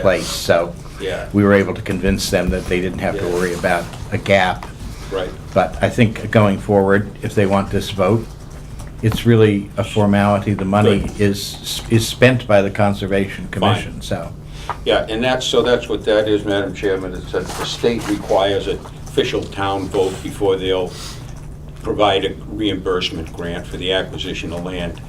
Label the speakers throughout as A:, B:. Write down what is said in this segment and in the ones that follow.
A: place, so
B: Yeah.
A: we were able to convince them that they didn't have to
B: Yeah.
A: worry about a gap.
B: Right.
A: But I think going forward, if they want this vote, it's really a formality. The money
B: Good.
A: is, is spent by the Conservation Commission,
B: Fine.
A: so.
B: Yeah, and that's, so that's what that is, Madam Chairman, is that the state requires an official town vote before they'll provide a reimbursement grant for the acquisition of land.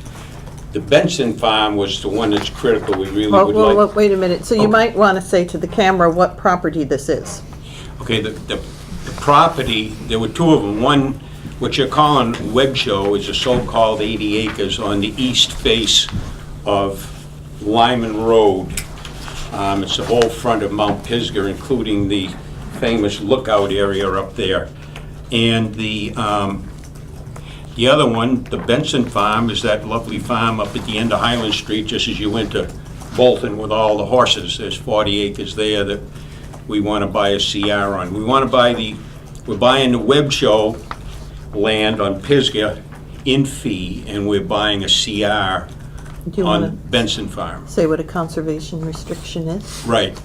B: The Benson Farm was the one that's critical, we really
C: Well,
B: would
C: well, well,
B: like. Oh.
C: wait a minute, so
B: Okay.
C: you might want to say to the camera what property this is.
B: Okay, the, the the property, there were two of them. One, what you're calling Web Show is a so-called 80 acres on the east face of Lyman Road. Um, It's the whole front of Mount Pisgah, including the famous lookout area up there. And the, um, the other one, the Benson Farm, is that lovely farm up at the end of Highland Street, just as you went to Bolton with all the horses. There's 40 acres there that we want to buy a CR on. We want to buy the, we're buying the Web Show land on Pisgah in fee, and we're buying a CR
C: Do you
B: on
C: want
B: Benson Farm.
C: to say what a conservation restriction is?
B: Right.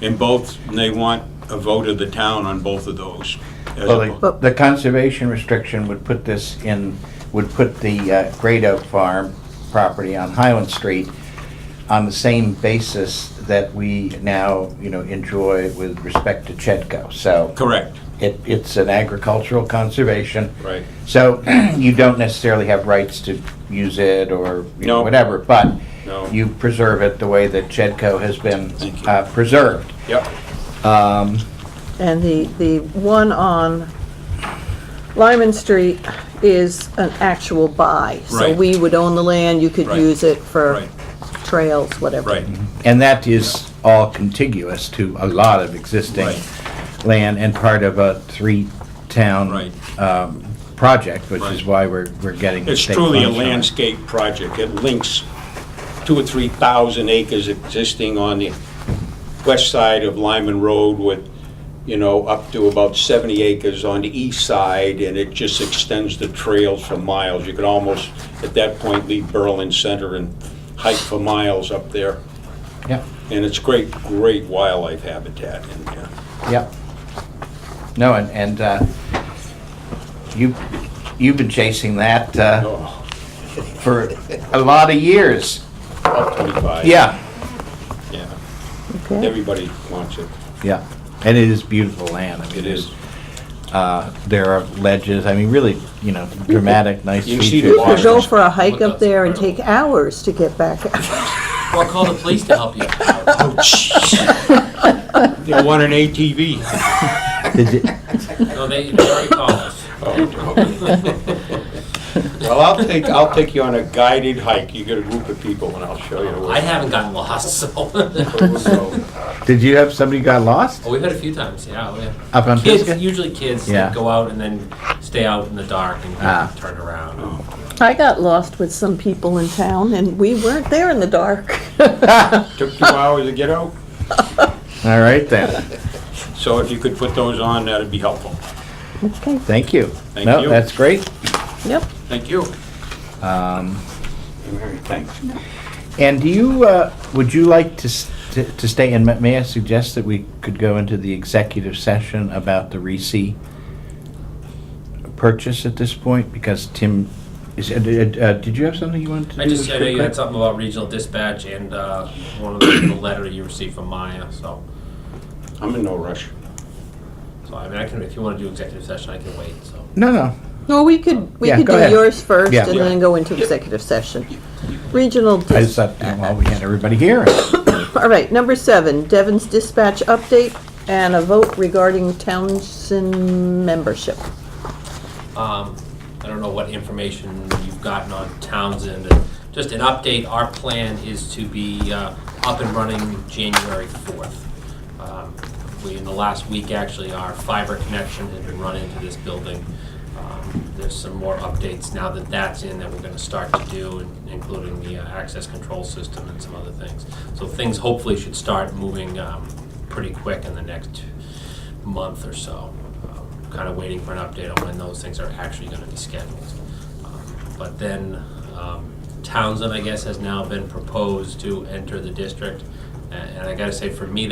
B: And both, and they want a vote of the town on both of those. as a
A: Well,
B: vote.
A: the- The conservation restriction would put this in, would put the uh, Great Oak Farm property on Highland Street on the same basis that we now, you know, enjoy with respect to Chetco, so.
B: Correct.
A: It, it's an agricultural conservation.
B: Right.
A: So you don't necessarily have rights to use it or, you know,
B: No.
A: whatever, but
B: No.
A: you preserve it the way that Chedco has been
B: Thank you.
A: uh, preserved.
B: Yep.
C: And the, the one on Lyman Street is an actual buy. So
B: Right.
C: we would own the land, you could
B: Right.
C: use it for
B: Right.
C: trails, whatever.
B: Right.
A: And that is all contiguous to a lot of existing
B: Right.
A: land and part of a three-town
B: Right.
A: um, project, which is
B: Right.
A: why we're, we're getting the
B: It's
A: state
B: truly a
A: funds on it.
B: landscape project. It links two or 3,000 acres existing on the west side of Lyman Road with, you know, up to about 70 acres on the east side, and it just extends the trails for miles. You could almost, at that point, leave Berlin Center and hike for miles up there.
A: Yep,
B: And it's great, great wildlife habitat in there.
A: yep. No, and, and uh, you, you've been chasing that uh,
B: Oh,
A: for a lot of years.
B: About 25.
A: Yeah,
B: Yeah.
C: Okay.
B: Everybody wants it.
A: yeah. And it is beautiful land. I mean,
B: It is.
A: uh, There are ledges, I mean, really, you know, dramatic, nice
B: You see the
A: features.
C: You go
B: waters.
C: for a hike up there and take hours to get back.
D: Or call the police to help you.
B: Oh, jeez. They want an ATV.
A: Is it-
D: No, they, they already called us.
B: Well, I'll take, I'll take you on a guided hike. You get a group of people and I'll show you the
D: I
B: way.
D: haven't gotten lost, so. oh,
B: So,
A: Did you have somebody got lost
D: we've had a few times, yeah. we have-
A: up on
D: Kids,
A: Pisgah?
D: usually kids that
A: Yeah.
D: go out and then stay out in the dark and
A: Ah.
D: turn
B: Oh,
D: around.
C: I got lost with some people in town and we weren't there in the dark.
B: Took two hours to get out,
A: All right then,
B: so if you could put those on, that'd be helpful.
C: Okay,
A: thank you.
B: Thank
A: No,
B: you.
A: that's great.
C: yep.
B: Thank you. Mary, thanks.
A: And do you, uh, would you like to s- to to stay, and may- may I suggest that we could go into the executive session about the Reese purchase at this point? Because Tim, is, uh, uh, did you have something you wanted to do?
D: I just, I know you had uh,
A: quickly?
D: something about regional dispatch and uh, one of the, the letter you received from Maya, so.
B: I'm in no rush.
D: So, I mean, I can, if you want to do executive session, I can wait, so.
A: No, no,
C: Well, we could, we
A: Yeah,
C: could
A: go
C: do
A: ahead.
C: yours first
A: Yeah.
C: and then go into executive session. Regional,
A: I
C: dis-
A: just thought, well, we had everybody here.
C: all right, number seven, Devon's dispatch update and a vote regarding Townsend membership.
D: Um, I don't know what information you've gotten on Townsend, and just an update, our plan is to be uh, up and running January 4th. Um, We, in the last week, actually, our fiber connection has been run into this building. Um, There's some more updates now that that's in that we're gonna start to do, in- including the uh, access control system and some other things. So things hopefully should start moving um, pretty quick in the next month or so. Kind of waiting for an update on when those things are actually going to be scheduled. Um, But then um, Townsend, I guess, has now been proposed to enter the district. And and I gotta say, for me,